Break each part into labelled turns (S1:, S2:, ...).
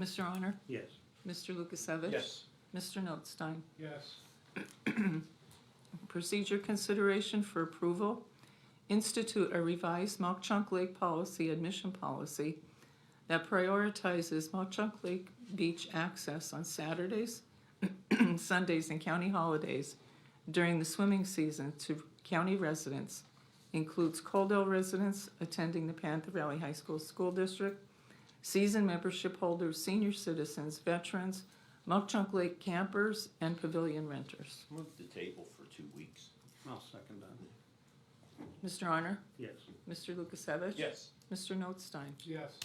S1: Mr. Honor?
S2: Yes.
S1: Mr. Lukasevich? Mr. Notstein?
S3: Yes.
S1: Procedure consideration for approval. Institute a revised Mock Chunk Lake policy, admission policy, that prioritizes Mock Chunk Lake beach access on Saturdays, Sundays, and county holidays during the swimming season to county residents. Includes Coldell residents attending the Panther Valley High School School District, season membership holders, senior citizens, veterans, Mock Chunk Lake campers, and pavilion renters.
S4: Move the table for two weeks.
S2: I'll second that.
S1: Mr. Honor?
S2: Yes.
S1: Mr. Lukasevich?
S4: Yes.
S1: Mr. Notstein?
S3: Yes.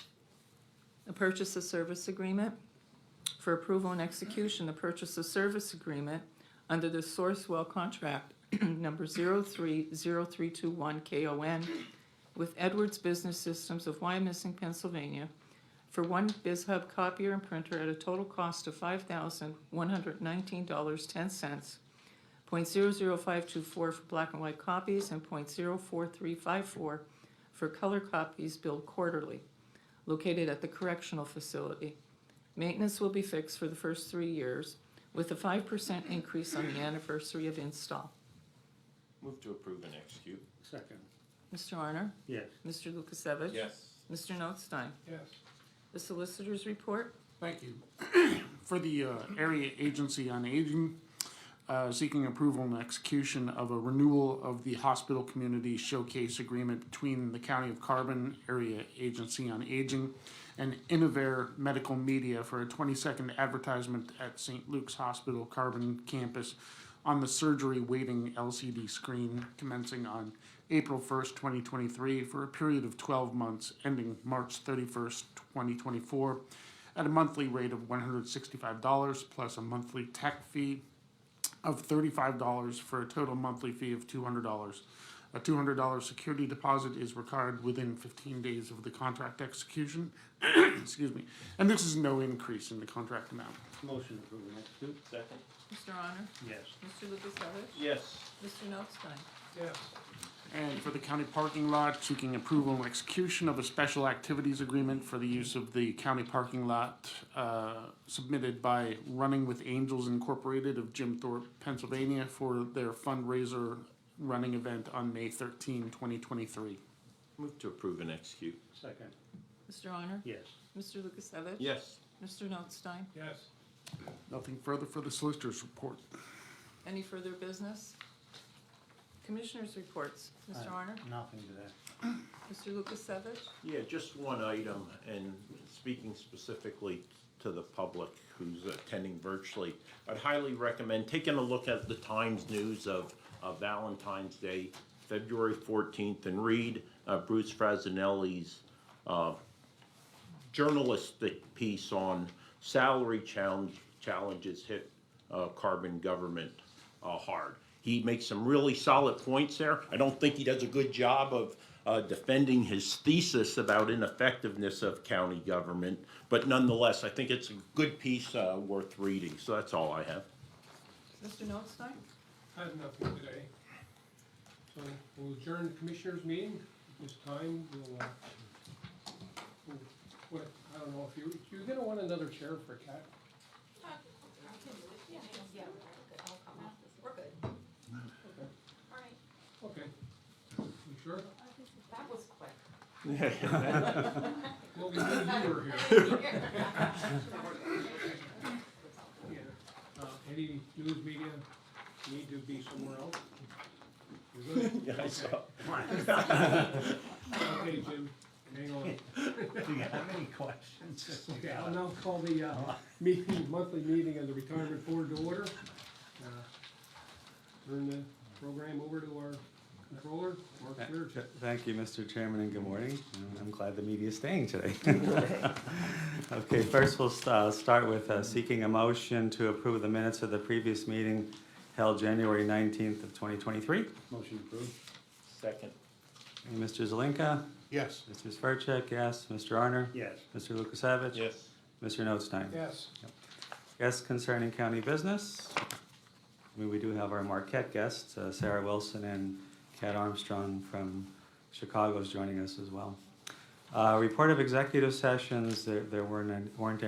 S1: A purchase of service agreement. For approval and execution, the purchase of service agreement under the Sourcewell contract number 030321KON with Edwards Business Systems of Wyomissing, Pennsylvania, for one BizHub copier and printer at a total cost of $5,119.10, .00524 for black and white copies, and .04354 for color copies billed quarterly located at the correctional facility. Maintenance will be fixed for the first three years with a five percent increase on the anniversary of install.
S4: Move to approve and execute.
S2: Second.
S1: Mr. Arner?
S2: Yes.
S1: Mr. Lukasevich? Mr. Notstein?
S3: Yes.
S1: The solicitor's report?
S5: Thank you. For the uh, Area Agency on Aging, uh, seeking approval and execution of a renewal of the hospital community showcase agreement between the County of Carbon Area Agency on Aging and Innovair Medical Media for a 20-second advertisement at St. Luke's Hospital Carbon Campus on the surgery waiting LCD screen commencing on April 1st, 2023 for a period of 12 months ending March 31st, 2024 at a monthly rate of $165 plus a monthly tech fee of thirty-five dollars for a total monthly fee of two hundred dollars. A two hundred dollar security deposit is required within fifteen days of the contract execution. Excuse me, and this is no increase in the contract amount.
S2: Motion approve and execute.
S4: Second?
S1: Mr. Honor?
S2: Yes.
S1: Mr. Lukasevich?
S4: Yes.
S1: Mr. Notstein?
S3: Yes.
S5: And for the county parking lot, seeking approval and execution of a special activities agreement for the use of the county parking lot uh, submitted by Running with Angels Incorporated of Jim Thorpe, Pennsylvania for their fundraiser running event on May 13, 2023.
S4: Move to approve and execute.
S2: Second.
S1: Mr. Honor?
S2: Yes.
S1: Mr. Lukasevich?
S4: Yes.
S1: Mr. Notstein?
S3: Yes.
S5: Nothing further for the solicitor's report.
S1: Any further business? Commissioners' reports. Mr.
S2: Aye.
S1: Honor?
S2: Nothing to that.
S1: Mr. Lukasevich?
S4: Yeah, just one item, and speaking specifically to the public who's attending virtually, I'd highly recommend taking a look at the Times News of uh, Valentine's Day, February 14th, and read uh, Bruce Frazanelli's uh, journalistic piece on salary challenge, challenges hit uh, carbon government uh, hard. He makes some really solid points there. I don't think he does a good job of uh, defending his thesis about ineffectiveness of county government, but nonetheless, I think it's a good piece uh, worth reading. So that's all I have.
S1: Mr. Notstein?
S3: I have nothing today. So we'll adjourn the commissioners' meeting. At This time, we'll, uh, we'll- what, I don't know if you, you're gonna want another chair for Cat.
S6: Yeah, we're good. I'll come off this. We're good. All right,
S3: Okay. You sure?
S6: that was quick.
S3: Well, we knew you were here. Yeah, uh, any news media need to be somewhere else? You're good?
S4: Yeah, I saw.
S3: Okay, Jim, hang on.
S2: Do you have any questions?
S3: Okay, I'll now call the, uh, meeting, monthly meeting of the retirement board to order. Uh, Turn the program over to our controller, Mark Clear.
S7: Th- Thank you, Mr. Chairman, and good morning. And I'm glad the media is staying today. Okay, first we'll st- uh, start with uh, seeking a motion to approve the minutes of the previous meeting held January 19th of 2023.
S2: Motion approved.
S4: Second.
S7: And Mr. Zelinka,
S5: Yes.
S7: Mr. Svercek, yes, Mr. Arner,
S2: Yes.
S7: Mr. Lukasevich.
S4: Yes.
S7: Mr. Notstein.
S3: Yes,
S7: Guests concerning county business. I mean, we do have our Marquette guests, uh, Sarah Wilson and Kat Armstrong from Chicago is joining us as well. Uh, Report of executive sessions, there there weren't, weren't any